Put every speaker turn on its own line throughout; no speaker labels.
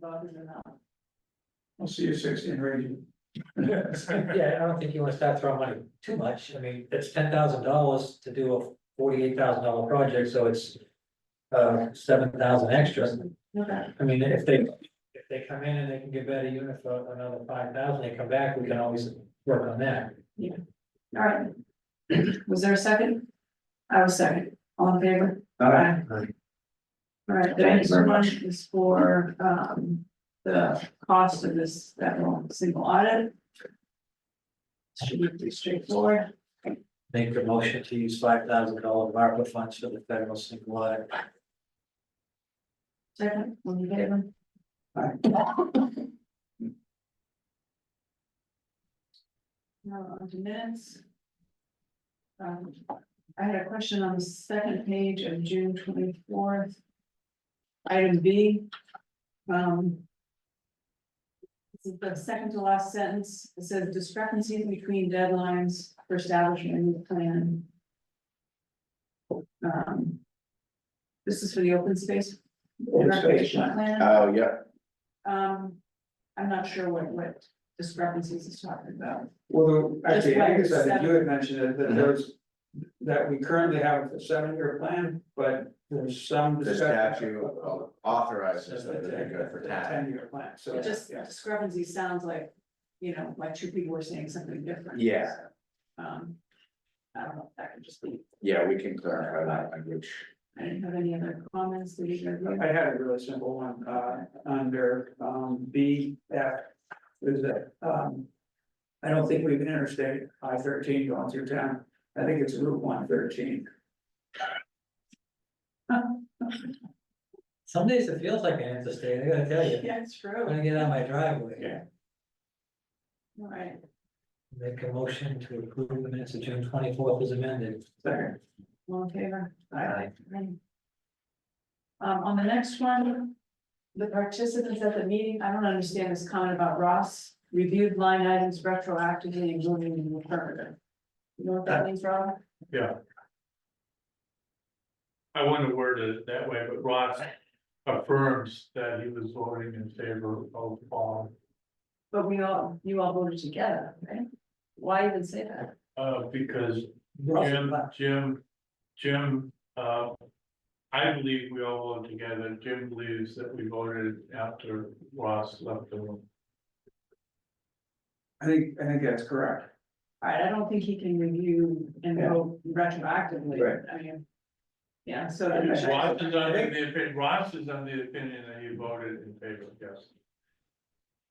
voted or not.
I'll see you sixteen, Randy.
Yeah, I don't think you wanna start throwing money too much, I mean, it's ten thousand dollars to do a forty-eight thousand dollar project, so it's. Uh, seven thousand extra,
Okay,
I mean, if they, if they come in and they can get better unit for another five thousand, they come back, we can always work on that.
all right. Was there a second? I was second, all in favor?
All right,
All right, the next one is for, um, the cost of this, that one single audit. Should be pretty straightforward.
Make the motion to use five thousand dollar ARPA funds for the federal single audit.
Second, all in favor?
Aye.
Now, on to minutes. Um, I had a question on the second page of June twenty-fourth. Item B. Um. This is the second to last sentence, it says discrepancies between deadlines for establishing a new plan. Um. This is for the open space.
Open space.
recreation plan.
Oh, yeah,
Um, I'm not sure what, what discrepancies it's talking about.
well, actually, I think it's, I think
Just
you had mentioned it, that there's. That we currently have a seven-year plan, but there's some
the
discussion.
statute
about-
authorizes them to be good for tax.
Ten-year plan, so.
It just discrepancy sounds like, you know, like two people were saying something different.
Yeah.
Um, I don't know, if that could just be,
Yeah, we can clarify that language.
I didn't have any other comments, did you guys?
I had a really simple one, uh, under, um, B, F, is that, um. I don't think we've interstate I thirteen going through town, I think it's Route one thirteen.
Some days it feels like an interstate, I gotta tell you,
Yeah, it's
I'm
true.
gonna get out of my driveway.
Yeah.
All right,
Make a motion to approve the minutes of June twenty-fourth as amended.
Second,
all in favor?
Aye.
Um, on the next one, the participants at the meeting, I don't understand this comment about Ross, reviewed line items retroactively and moving in the affirmative. You know what that means, Rob?
I wouldn't have worded it that way, but Ross affirms that he was voting in favor of the bond.
But we all, you all voted together, right? Why even say that?
Uh, because Jim,
Russell,
Jim, Jim, uh. I believe we all voted together, Jim believes that we voted after Ross left the room.
I think, I think that's correct.
All right, I don't think he can review and
Yeah.
vote retroactively,
Right.
I mean. Yeah, so.
Ross is under the opinion, Ross is under the opinion that he voted in favor, yes.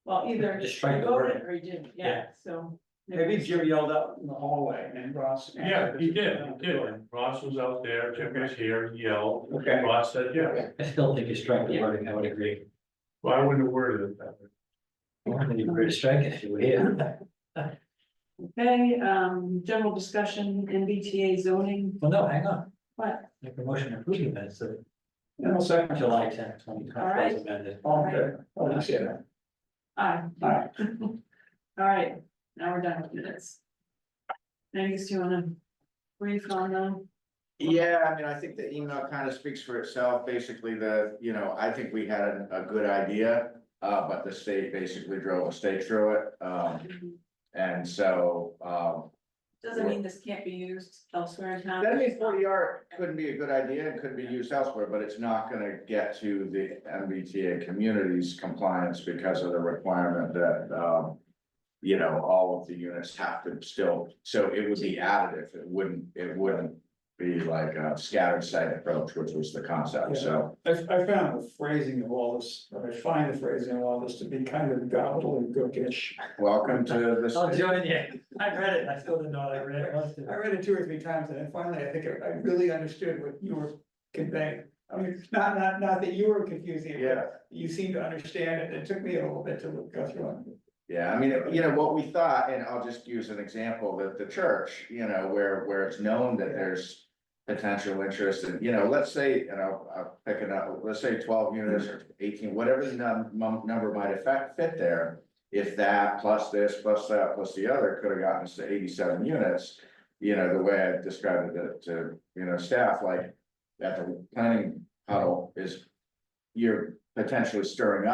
Well, either he
Just trying to word
voted or he didn't, yeah, so.
Maybe Jim yelled out in the hallway and Ross.
Yeah, he did, he did, Ross was out there, Jim was here, he yelled,
Okay,
Ross said, yes.
I still think you strike the wording, I would agree.
Well, I wouldn't have worded it that way.
Well, then you were to strike it if you were here.
Okay, um, general discussion in BTA zoning,
Well, no, hang on,
what,
make a motion to approve the minutes of
and I'll second July,
July tenth, twenty twenty-four as amended.
all good, oh, that's it,
aye,
all right,
all right, now we're done with minutes. Angus, do you wanna brief on them?
Yeah, I mean, I think the email kind of speaks for itself, basically the, you know, I think we had a, a good idea. Uh, but the state basically drove a stake through it, um, and so, um.
Doesn't mean this can't be used elsewhere in town.
That means forty R couldn't be a good idea and could be used elsewhere, but it's not gonna get to the MBTA community's compliance because of the requirement that, um. You know, all of the units have to still, so it would be additive, it wouldn't, it wouldn't be like a scattered site approach, which was the concept, so.
I, I found the phrasing of all this, or I find the phrasing of all this to be kind of gobbledygookish.
Welcome to this.
I'll join you, I read it, I still didn't know what I read.
I read it two or three times and then finally I think I I really understood what you were conveying. I mean, not, not, not that you were confusing it,
Yeah.
but you seemed to understand it. It took me a little bit to look- go through it.
Yeah, I mean, you know, what we thought, and I'll just use an example, that the church, you know, where, where it's known that there's. Potential interest in, you know, let's say, and I'll, I'll pick it up, let's say twelve units or eighteen, whatever the num- mum- number might affect, fit there. If that plus this, plus that, plus the other could have gotten us to eighty-seven units, you know, the way I described it to, you know, staff, like. That the planning huddle is, you're potentially stirring up.